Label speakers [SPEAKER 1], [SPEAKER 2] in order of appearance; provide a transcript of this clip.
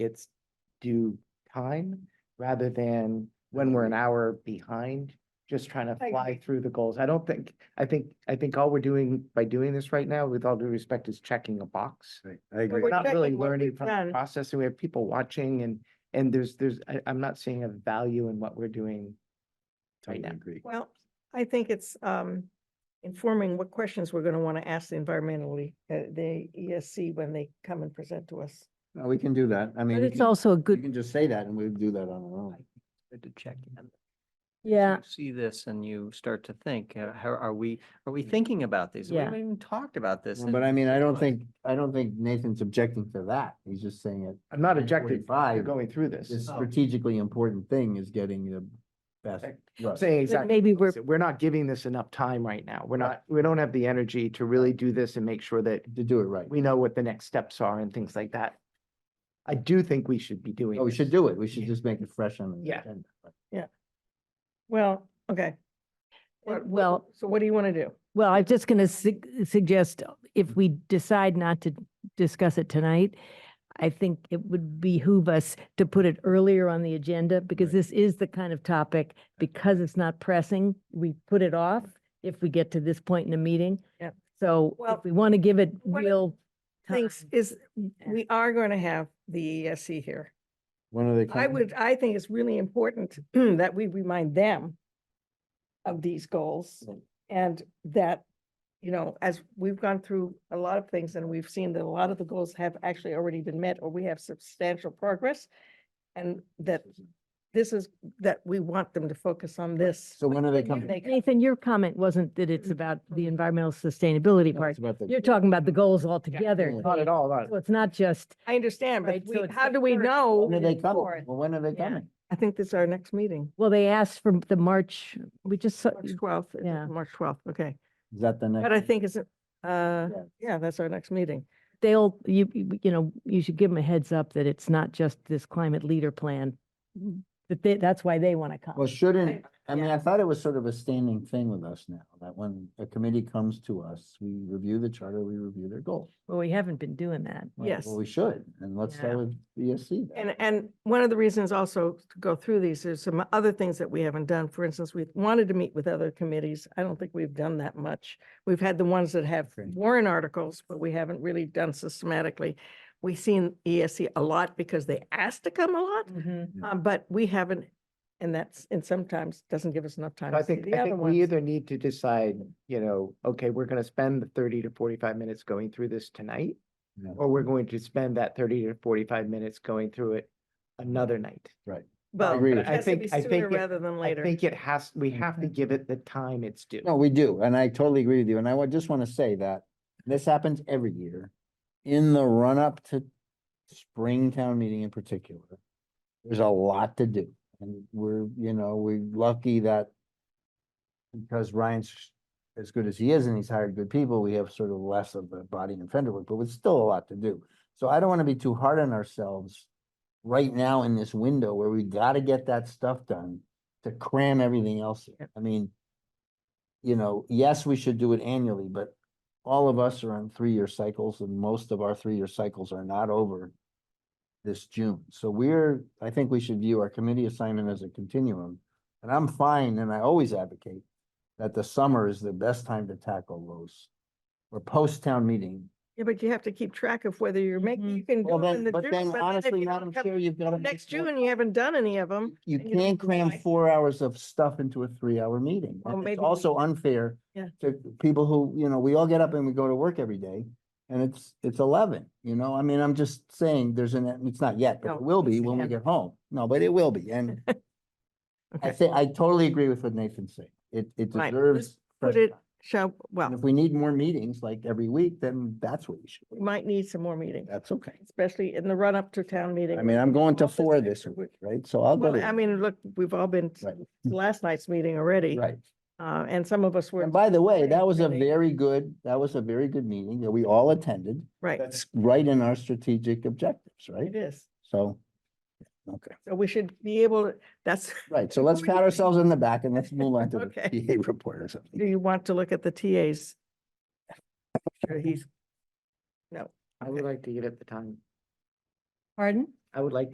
[SPEAKER 1] its due time rather than when we're an hour behind, just trying to
[SPEAKER 2] I
[SPEAKER 1] fly through the goals. I don't think, I think, I think all we're doing by doing this right now, with all due respect, is checking a box.
[SPEAKER 3] Right, I
[SPEAKER 2] But
[SPEAKER 1] We're
[SPEAKER 3] agree.
[SPEAKER 2] we're
[SPEAKER 1] not really
[SPEAKER 2] checking what
[SPEAKER 1] learning
[SPEAKER 2] we've
[SPEAKER 1] from the
[SPEAKER 2] done.
[SPEAKER 1] process and we have people watching and, and there's, there's, I, I'm not seeing a value in what we're doing.
[SPEAKER 3] Totally
[SPEAKER 1] now.
[SPEAKER 3] agree.
[SPEAKER 2] Well, I think it's um informing what questions we're gonna want to ask the environmentally, uh, the ESC when they come and present to us.
[SPEAKER 3] No, We can do that. I mean,
[SPEAKER 4] But
[SPEAKER 3] we
[SPEAKER 4] it's
[SPEAKER 3] can-
[SPEAKER 4] also a
[SPEAKER 3] we
[SPEAKER 4] good,
[SPEAKER 3] can just say that and we do that on our own.
[SPEAKER 5] Good to check in. So
[SPEAKER 4] yeah,
[SPEAKER 5] you See this and you start to think, uh, how are we, are we thinking about these? We
[SPEAKER 4] Yeah.
[SPEAKER 5] haven't even talked about this.
[SPEAKER 3] But
[SPEAKER 5] in-
[SPEAKER 3] I mean, I don't
[SPEAKER 5] months.
[SPEAKER 3] think, I don't think Nathan's objecting to that. He's just saying it.
[SPEAKER 1] I'm not
[SPEAKER 3] And
[SPEAKER 1] objecting, to
[SPEAKER 3] 45.
[SPEAKER 1] going through this.
[SPEAKER 3] This strategically important thing is getting the best.
[SPEAKER 1] I'm
[SPEAKER 3] look.
[SPEAKER 1] saying
[SPEAKER 4] but
[SPEAKER 1] exactly,
[SPEAKER 4] maybe we're,
[SPEAKER 1] opposite. we're not giving this enough time right now. We're not, we don't have the energy to really do this and make sure that
[SPEAKER 3] To do it right.
[SPEAKER 1] we know what the next steps are and things like that. I do think we should be doing.
[SPEAKER 3] Oh, we should
[SPEAKER 1] this.
[SPEAKER 3] do it. We should just make it fresh on the
[SPEAKER 1] Yeah.
[SPEAKER 3] agenda.
[SPEAKER 2] Well, okay.
[SPEAKER 4] Well-
[SPEAKER 2] What- what- So what do you want to do?
[SPEAKER 4] well, I'm just going to suggest uh, if we decide not to discuss it tonight, I think it would behoove us to put it earlier on the agenda because
[SPEAKER 3] Right.
[SPEAKER 4] this is the kind of topic, because it's not pressing, we put it off if we get to this point in the meeting.
[SPEAKER 2] Yep.
[SPEAKER 4] So
[SPEAKER 2] Well,
[SPEAKER 4] if we want to give it
[SPEAKER 2] one of
[SPEAKER 4] real time.
[SPEAKER 2] Things is,
[SPEAKER 4] Yeah.
[SPEAKER 2] we are going to have the ESC here.
[SPEAKER 3] When are they coming?
[SPEAKER 2] I would, I think it's really important that we remind them of these goals
[SPEAKER 3] Right.
[SPEAKER 2] and that, you know, as we've gone through a lot of things and we've seen that a lot of the goals have actually already been met or we have substantial progress. And that this is, that we want them to focus on this.
[SPEAKER 3] So when are they
[SPEAKER 2] when
[SPEAKER 3] coming?
[SPEAKER 2] they come.
[SPEAKER 4] Nathan, your comment wasn't that it's about the environmental sustainability
[SPEAKER 3] No,
[SPEAKER 4] part.
[SPEAKER 3] it's about the-
[SPEAKER 4] You're talking about the goals altogether.
[SPEAKER 3] Yeah.
[SPEAKER 1] Not at all, not.
[SPEAKER 4] So it's not just,
[SPEAKER 2] I understand, but
[SPEAKER 4] Right, so
[SPEAKER 2] we-
[SPEAKER 4] it's
[SPEAKER 2] how
[SPEAKER 4] the
[SPEAKER 2] do we
[SPEAKER 4] first
[SPEAKER 2] know?
[SPEAKER 3] When are they coming?
[SPEAKER 2] for it?
[SPEAKER 3] Well, when are they
[SPEAKER 4] Yeah.
[SPEAKER 3] coming?
[SPEAKER 2] I think this is our next meeting,
[SPEAKER 4] well, they asked for the March, we just, saw-
[SPEAKER 2] March twelfth,
[SPEAKER 4] Yeah.
[SPEAKER 2] March twelfth, okay.
[SPEAKER 3] Is that the next?
[SPEAKER 2] But I think it's, uh,
[SPEAKER 3] Yeah.
[SPEAKER 2] yeah, that's our next meeting.
[SPEAKER 4] they'll, you, you you know, you should give them a heads up that it's not just this climate leader plan. That they, that's why they want to
[SPEAKER 3] Well,
[SPEAKER 4] come.
[SPEAKER 3] shouldn't, I mean,
[SPEAKER 4] yeah.
[SPEAKER 3] I thought it was sort of a standing thing with us now, that when a committee comes to us, we review the charter, we review their goals.
[SPEAKER 4] Well, we haven't been doing that.
[SPEAKER 3] Well,
[SPEAKER 2] Yes.
[SPEAKER 3] Well, we should, and let's start
[SPEAKER 4] Yeah.
[SPEAKER 3] with BSC. then.
[SPEAKER 2] And, and one of the reasons also to go through these, there's some other things that we haven't done. For instance, we wanted to meet with other committees. I don't think we've done that much. We've had the ones that have
[SPEAKER 3] Right.
[SPEAKER 2] warrant articles, but we haven't really done systematically. We've seen ESC a lot because they asked to come a lot,
[SPEAKER 1] Mm-hmm.
[SPEAKER 2] um, but we haven't, and that's, and sometimes doesn't give us enough time.
[SPEAKER 1] I
[SPEAKER 2] to see
[SPEAKER 1] think,
[SPEAKER 2] the
[SPEAKER 1] I
[SPEAKER 2] other
[SPEAKER 1] think
[SPEAKER 2] ones.
[SPEAKER 1] we either need to decide, you know, okay, we're gonna spend the thirty to forty-five minutes going through this tonight.
[SPEAKER 3] Yeah.
[SPEAKER 1] Or we're going to spend that thirty to forty-five minutes going through it another night.
[SPEAKER 2] Well,
[SPEAKER 3] agree with
[SPEAKER 2] but it
[SPEAKER 1] you. I
[SPEAKER 2] has to
[SPEAKER 1] think-
[SPEAKER 2] be
[SPEAKER 1] I
[SPEAKER 2] sooner
[SPEAKER 1] think it-
[SPEAKER 2] rather than
[SPEAKER 1] I
[SPEAKER 2] later.
[SPEAKER 1] think it has, we have to give it the time it's due.
[SPEAKER 3] No, we do, and I totally agree with you, and I wa- just want to say that this happens every year. In the run-up to spring town meeting in particular, there's a lot to do, and we're, you know, we're lucky that because Ryan's as good as he is and he's hired good people, we have sort of less of the body and fender work, but it's still a lot to do. So I don't want to be too hard on ourselves right now in this window where we got to get that stuff done to cram everything else. in. I mean, you know, yes, we should do it annually, but all of us are on three-year cycles and most of our three-year cycles are not over this June. So we're, I think we should view our committee assignment as a continuum. And I'm fine, and I always advocate that the summer is the best time to tackle those. Or post-town meeting.
[SPEAKER 2] Yeah, but you have to keep track of whether you're making,
[SPEAKER 1] Mm-hmm.
[SPEAKER 4] Mhm.
[SPEAKER 2] you can
[SPEAKER 3] Well,
[SPEAKER 2] do it in
[SPEAKER 3] then,
[SPEAKER 2] the
[SPEAKER 3] but
[SPEAKER 2] June.
[SPEAKER 3] then
[SPEAKER 2] if
[SPEAKER 3] honestly,
[SPEAKER 2] you don't
[SPEAKER 3] Madam
[SPEAKER 2] come
[SPEAKER 3] Chair, you've got to.
[SPEAKER 2] Next June, you haven't done any of them.
[SPEAKER 3] You
[SPEAKER 2] and you don't
[SPEAKER 3] can't cram
[SPEAKER 2] decide.
[SPEAKER 3] four hours of stuff into a three-hour meeting.
[SPEAKER 2] Well,
[SPEAKER 3] And
[SPEAKER 2] maybe
[SPEAKER 3] It's
[SPEAKER 2] we-
[SPEAKER 3] also unfair
[SPEAKER 2] Yeah.
[SPEAKER 3] to people who, you know, we all get up and we go to work every day and it's, it's eleven, you know? I mean, I'm just saying there's an, it's not yet, but
[SPEAKER 2] No,
[SPEAKER 3] it will be
[SPEAKER 2] it's
[SPEAKER 3] when we
[SPEAKER 2] ten.
[SPEAKER 3] get home. No, but it will be. And I
[SPEAKER 2] Okay.
[SPEAKER 3] say, I totally agree with what Nathan's saying. It, it
[SPEAKER 2] Right.
[SPEAKER 3] deserves.
[SPEAKER 2] Put
[SPEAKER 3] fresh
[SPEAKER 2] it,
[SPEAKER 3] time.
[SPEAKER 2] shall,
[SPEAKER 3] And if
[SPEAKER 2] well,
[SPEAKER 3] we need more meetings like every week, then that's what we should.
[SPEAKER 2] we
[SPEAKER 3] do.
[SPEAKER 2] might need some more meetings,
[SPEAKER 3] That's okay.
[SPEAKER 2] especially in the run up to town meeting.
[SPEAKER 3] I mean, I'm going to
[SPEAKER 2] Office
[SPEAKER 3] four
[SPEAKER 2] extra
[SPEAKER 3] this week, right? So I'll go
[SPEAKER 2] Well, I
[SPEAKER 3] to,
[SPEAKER 2] mean, look, we've all been to
[SPEAKER 3] Right.
[SPEAKER 2] last night's meeting already,
[SPEAKER 3] right.
[SPEAKER 2] uh, and some of us were,
[SPEAKER 3] And by the way, that was a
[SPEAKER 2] really-
[SPEAKER 3] very good, that was a very good meeting that we all attended.
[SPEAKER 2] right,
[SPEAKER 3] That's right in our strategic objectives, right?
[SPEAKER 2] it is.
[SPEAKER 3] So, okay,
[SPEAKER 2] So we should be able, to. that's,
[SPEAKER 3] right. So let's pat ourselves on the back and let's move on to
[SPEAKER 2] Okay.
[SPEAKER 3] the PA report or
[SPEAKER 2] do
[SPEAKER 3] something.
[SPEAKER 2] you want to look at the TAs? Sure, He's,
[SPEAKER 1] I would like to give it the time.
[SPEAKER 4] Pardon?
[SPEAKER 1] I would like